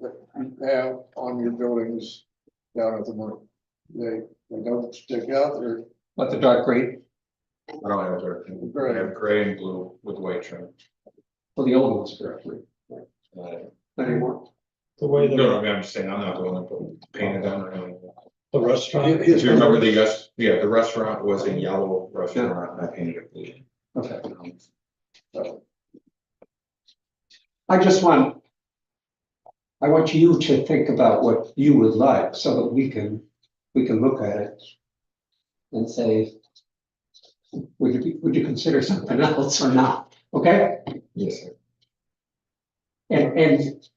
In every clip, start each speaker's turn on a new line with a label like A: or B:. A: that you have on your buildings down at the moment. They, they don't stick out there.
B: Let the dark gray,
C: I don't have dark, I have gray and blue with white trim.
B: well, the old ones correctly,
C: Uh,
B: not anymore.
D: The
C: No,
D: way
C: no,
D: the,
C: I mean, I'm just saying, I'm not the one that put painted on or anything.
D: the restaurant,
C: If you remember the, yes- yeah, the restaurant was a yellow restaurant, and I painted it blue.
B: Okay.
C: Um,
B: I just want. I want you to think about what you would like so that we can, we can look at it. And say. Would you, be- would you consider something else or not, okay?
C: Yes, sir.
B: And, and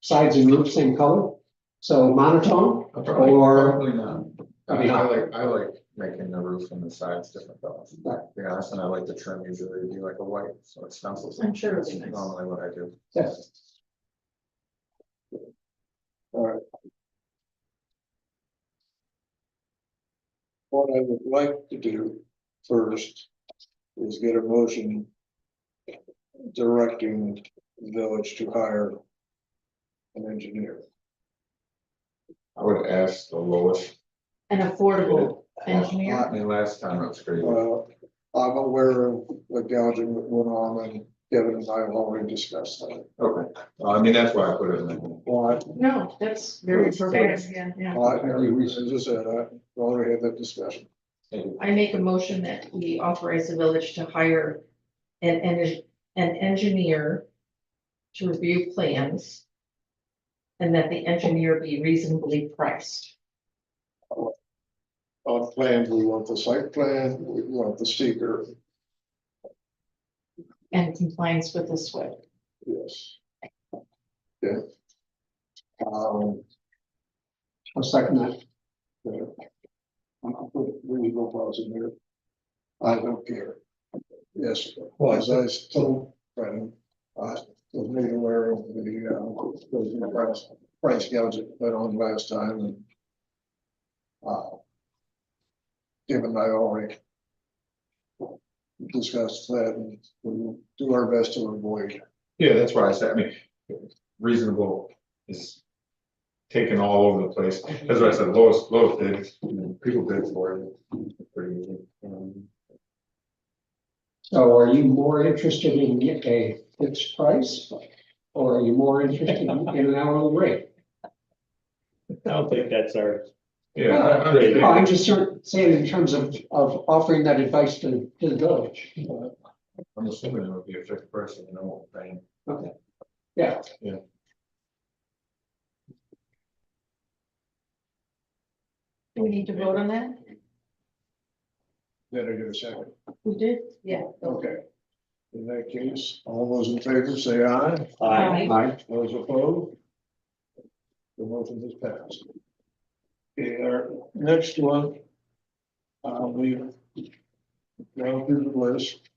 B: sides and roof same color, so monotone,
C: Probably-
B: Or-
C: Probably not. I mean, I like, I like making the roof and the sides different colors.
B: Right.
C: To be honest, and I like the trim usually to be like a white, so it's stencils.
E: I'm sure it'll
C: That's
E: be nice.
C: normally what I do.
B: yes,
A: What I would like to do first is get a motion directing the village to hire an engineer.
C: I would ask the lowest.
E: An affordable engineer,
C: I mean, last time it was great.
A: Well, I'm aware of the gouging that went on and Kevin and I have already discussed that.
C: Okay, Well, I mean, that's why I put it in. there.
A: Why,
E: no, that's very
A: Fair.
E: fair, yeah, yeah.
A: I, as I said, I already had that discussion.
E: I make a motion that we authorize the village to hire an, en- an engineer to review plans and that the engineer be reasonably priced.
A: On plans, we want the site plan, we want the seeker,
E: and compliance with the SWIP.
A: yes. Yeah. Um,
B: I'll second that.
A: yeah. I'm not putting legal laws in here. I don't care. Yes, well, as I told Brennan, I was made aware of the, uh, the price, price gouge that went on last time and. Uh. Given I already. Discussed that and we'll do our best to avoid.
C: Yeah, that's why I said, I mean, reasonable is taken all over the place. That's why I said lowest, lowest bid, people bid for it. Pretty easy. Um,
B: So are you more interested in get a fixed price? Or are you more interested in an hourly rate?
D: I don't think that's our,
C: Yeah. I- I
D: Great.
C: understand.
B: No, I'm just sort of saying in terms of, of offering that advice to, to the village.
C: I'm assuming it would be a fixed price, you know, thing.
B: Okay. Yeah.
C: Yeah.
E: Do we need to vote on that?
A: Better do a second.
E: We did? Yeah.
A: Okay. In that case, all those in favor say aye.
D: I,
B: Aye.
A: Those opposed? The motion is passed. Okay, our next one. Uh, we. Now through the list.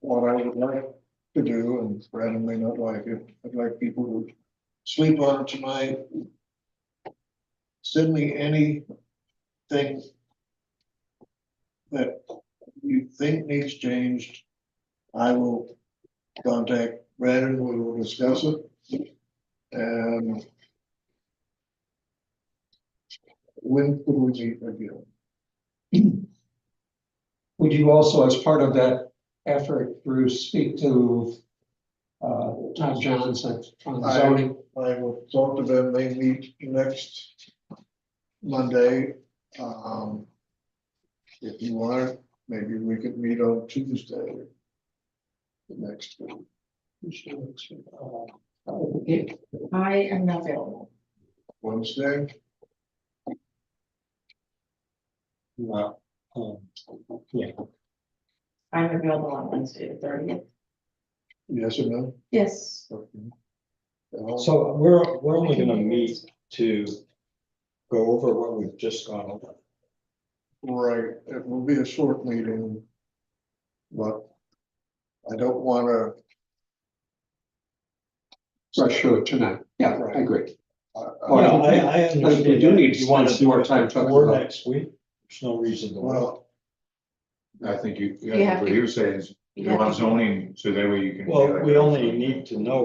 A: What I would like to do, and Brandon may not like it, I'd like people to sleep on it tonight. Send me anything. That you think needs changed. I will contact Brandon, we will discuss it. And when could we meet again?
B: Would you also, as part of that effort, Bruce, speak to uh, Tom Johnson from
A: I-
B: zoning?
A: I will talk to them, they meet next Monday. Um, if you want, maybe we could meet on Tuesday. The Next. week.
B: Uh,
E: I am not available.
A: Wednesday,
E: I'm available on Wednesday the thirtieth.
A: yes or no?
E: Yes.
A: Uh,
D: so we're, we're only gonna meet to go over what we've just gone over.
A: Right, it will be a short meeting. But I don't wanna
B: For sure, tonight. Yeah, I agree.
A: I-
B: Well,
A: I-
D: No, I, I
B: But we
D: understand
B: do
D: that.
B: need to
D: You wanna
B: spend
D: do
B: more
D: it
B: time talking
D: before
B: about it.
D: Next week, there's no reason to wait.
A: Well,
C: I think you,
E: You have
C: what
E: to-
C: he was saying is You want zoning, so that way you can. be
D: Well,
C: like
D: we
C: a-
D: only need to know